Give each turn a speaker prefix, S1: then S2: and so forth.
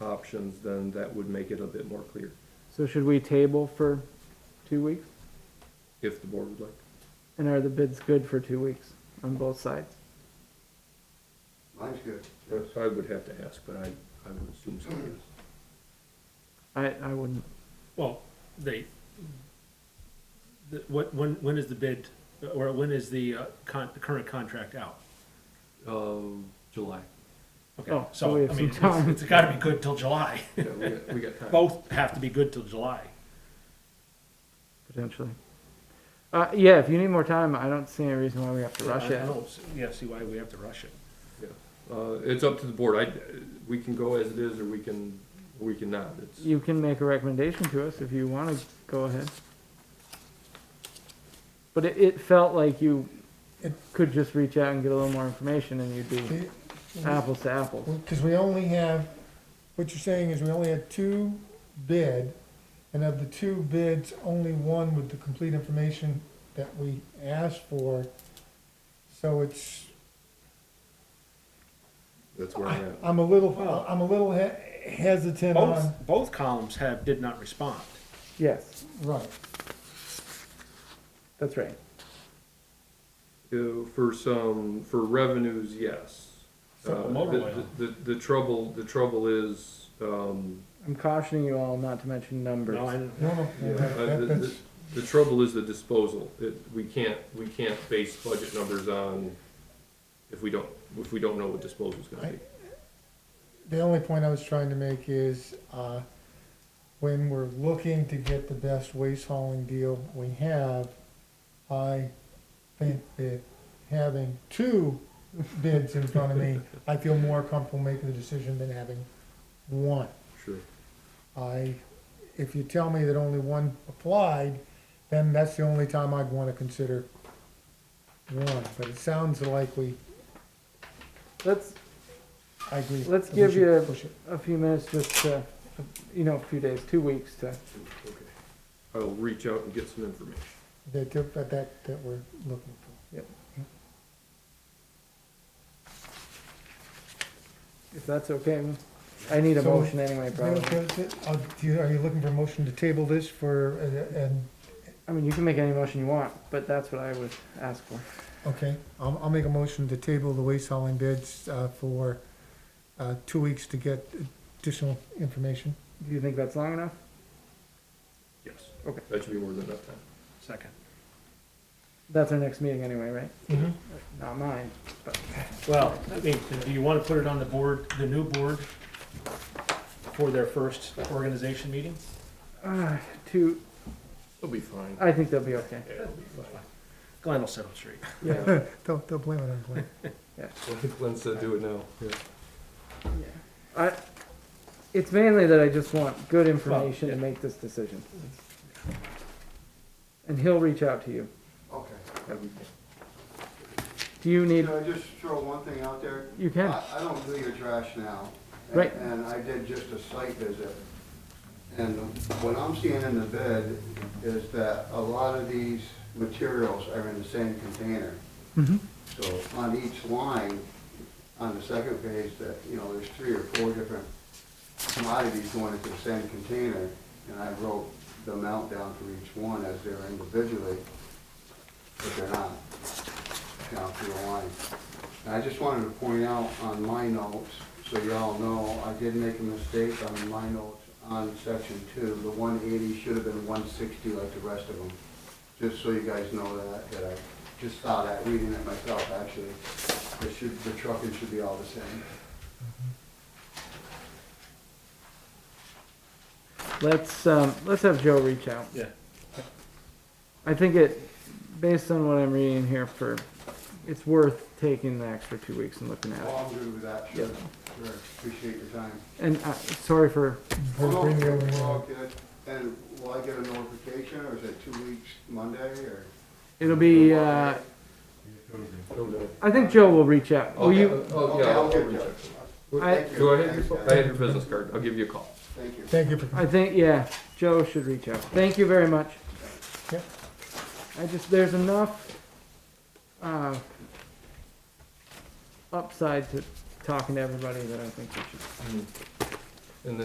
S1: options, then that would make it a bit more clear,
S2: So should we table for two weeks?
S1: if the board would like.
S2: And are the bids good for two weeks on both sides?
S3: Mine's good.
S1: Yes, I would have to ask, but I, I would assume so, yes.
S2: I, I wouldn't,
S4: Well, they, the- what, when, when is the bid, or when is the uh, con, the current contract out?
S1: Uh, July.
S4: Okay,
S2: Oh, so we
S4: so,
S2: have
S4: I
S2: some
S4: mean, it's,
S2: time.
S4: it's gotta be good till July.
S1: Yeah, we got, we got time.
S4: Both have to be good till July.
S2: potentially. Uh, yeah, if you need more time, I don't see any reason why we have to rush
S4: I- I
S2: it.
S4: don't s- Yeah, see why we have to rush it.
S1: Uh, it's up to the board. I, we can go as it is or we can, we can not. It's,
S2: You can make a recommendation to us if you wanna go ahead. But it, it felt like you
S5: It-
S2: could just reach out and get a little more information and you'd be
S5: Because
S2: apples to apples.
S5: we only have, what you're saying is we only had two bid, and of the two bids, only one with the complete information that we asked for. So it's,
S1: that's where I'm at.
S5: I'm a little, I'm a little he- hesitant
S2: uh,
S5: on,
S4: Both, both columns have, did not respond.
S2: Yes,
S5: right,
S2: that's right.
S1: Uh, For some, for revenues, yes.
S4: For
S1: Uh,
S4: motor
S1: the-
S4: oil.
S1: The, the trouble, the trouble is, um,
S2: I'm cautioning you all not to mention numbers.
S4: No, I don't-
S5: no, no,
S1: yeah,
S5: no,
S1: uh,
S5: that-
S1: the-
S5: that's,
S1: the- the trouble is the disposal. It, we can't, we can't base budget numbers on if we don't, if we don't know what disposal's gonna be.
S5: the only point I was trying to make is, uh, when we're looking to get the best waste hauling deal we have, I think that having two bids in front of me, I feel more comfortable making the decision than having one.
S1: Sure.
S5: I, if you tell me that only one applied, then that's the only time I'd wanna consider one, but it sounds like we,
S2: Let's,
S5: I agree.
S2: Let's
S5: that we
S2: give
S5: should
S2: you-
S5: push it.
S2: a few minutes, just, uh, you know, a few days, two weeks to,
S1: Okay. I'll reach out and get some information.
S5: That, that, that that we're looking for.
S2: if that's okay. I need a
S5: So-
S2: motion anyway, probably.
S5: Okay, so, uh, do you- Are you looking for a motion to table this for, uh, and,
S2: I mean, you can make any motion you want, but that's what I would ask for.
S5: okay, I'll, I'll make a motion to table the waste hauling bids uh, for uh, two weeks to get additional information.
S2: Do you think that's long enough?
S1: Yes.
S2: Okay.
S1: That should be more than enough time.
S4: Second.
S2: That's our next meeting anyway, right?
S5: Mhm.
S2: Not mine.
S4: Well, I mean, do you wanna put it on the board, the new board, for their first organization meeting?
S2: Uh, two,
S1: It'll be fine.
S5: Uh,
S2: I think that'll be okay.
S1: Yeah, it'll be fine.
S4: Glenn will settle straight.
S2: Yeah,
S5: Don't, don't blame it on Glenn.
S1: Glenn said do it now. Yeah.
S2: yeah. I, it's mainly that I just want good information to
S4: yeah.
S2: make this decision. And he'll reach out to you.
S3: Okay.
S1: That'd be fine.
S2: Do you need,
S3: Can I just throw one thing out there?
S2: you can.
S3: I, I don't do your trash now. and-
S2: Right.
S3: And I did just a site visit. And what I'm seeing in the bid is that a lot of these materials are in the same container.
S2: Mhm.
S3: So on each line, on the second page, that, you know, there's three or four different commodities going into the same container. And I wrote the amount down for each one as they're individually, but they're not, down through the line. And I just wanted to point out on my notes, so y'all know, I did make a mistake on my notes on section two. The one eighty should have been one sixty like the rest of them. Just so you guys know that, that I just saw that, reading it myself, actually. It should, the trucking should be all the same.
S2: Let's, um, let's have Joe reach out.
S4: Yeah.
S2: I think it, based on what I'm reading here for, it's worth taking the extra two weeks and looking at it.
S3: Well, I'm good with that, sure, sure, appreciate your time.
S2: And, uh, sorry for,
S5: We'll
S3: Well,
S5: bring the other
S3: We're all
S5: one.
S3: good, and will I get a notification, or is it two weeks Monday, or?
S2: it'll be, uh,
S1: No, no.
S2: I think Joe will reach out. Will
S1: Okay.
S2: you,
S1: Oh,
S3: Okay,
S1: yeah,
S3: I'll
S1: I'll
S3: get
S1: reach
S3: you.
S1: out.
S3: Well,
S2: I-
S3: thank you.
S1: Do I have your,
S3: Thanks,
S1: I
S3: guys.
S1: have your business card. I'll give you a call.
S3: Thank you.
S5: Thank you for.
S2: I think, yeah, Joe should reach out. Thank you very much.
S5: Yeah.
S2: I just, there's enough, uh,
S5: Mm.
S2: upside to talking to everybody that I think we should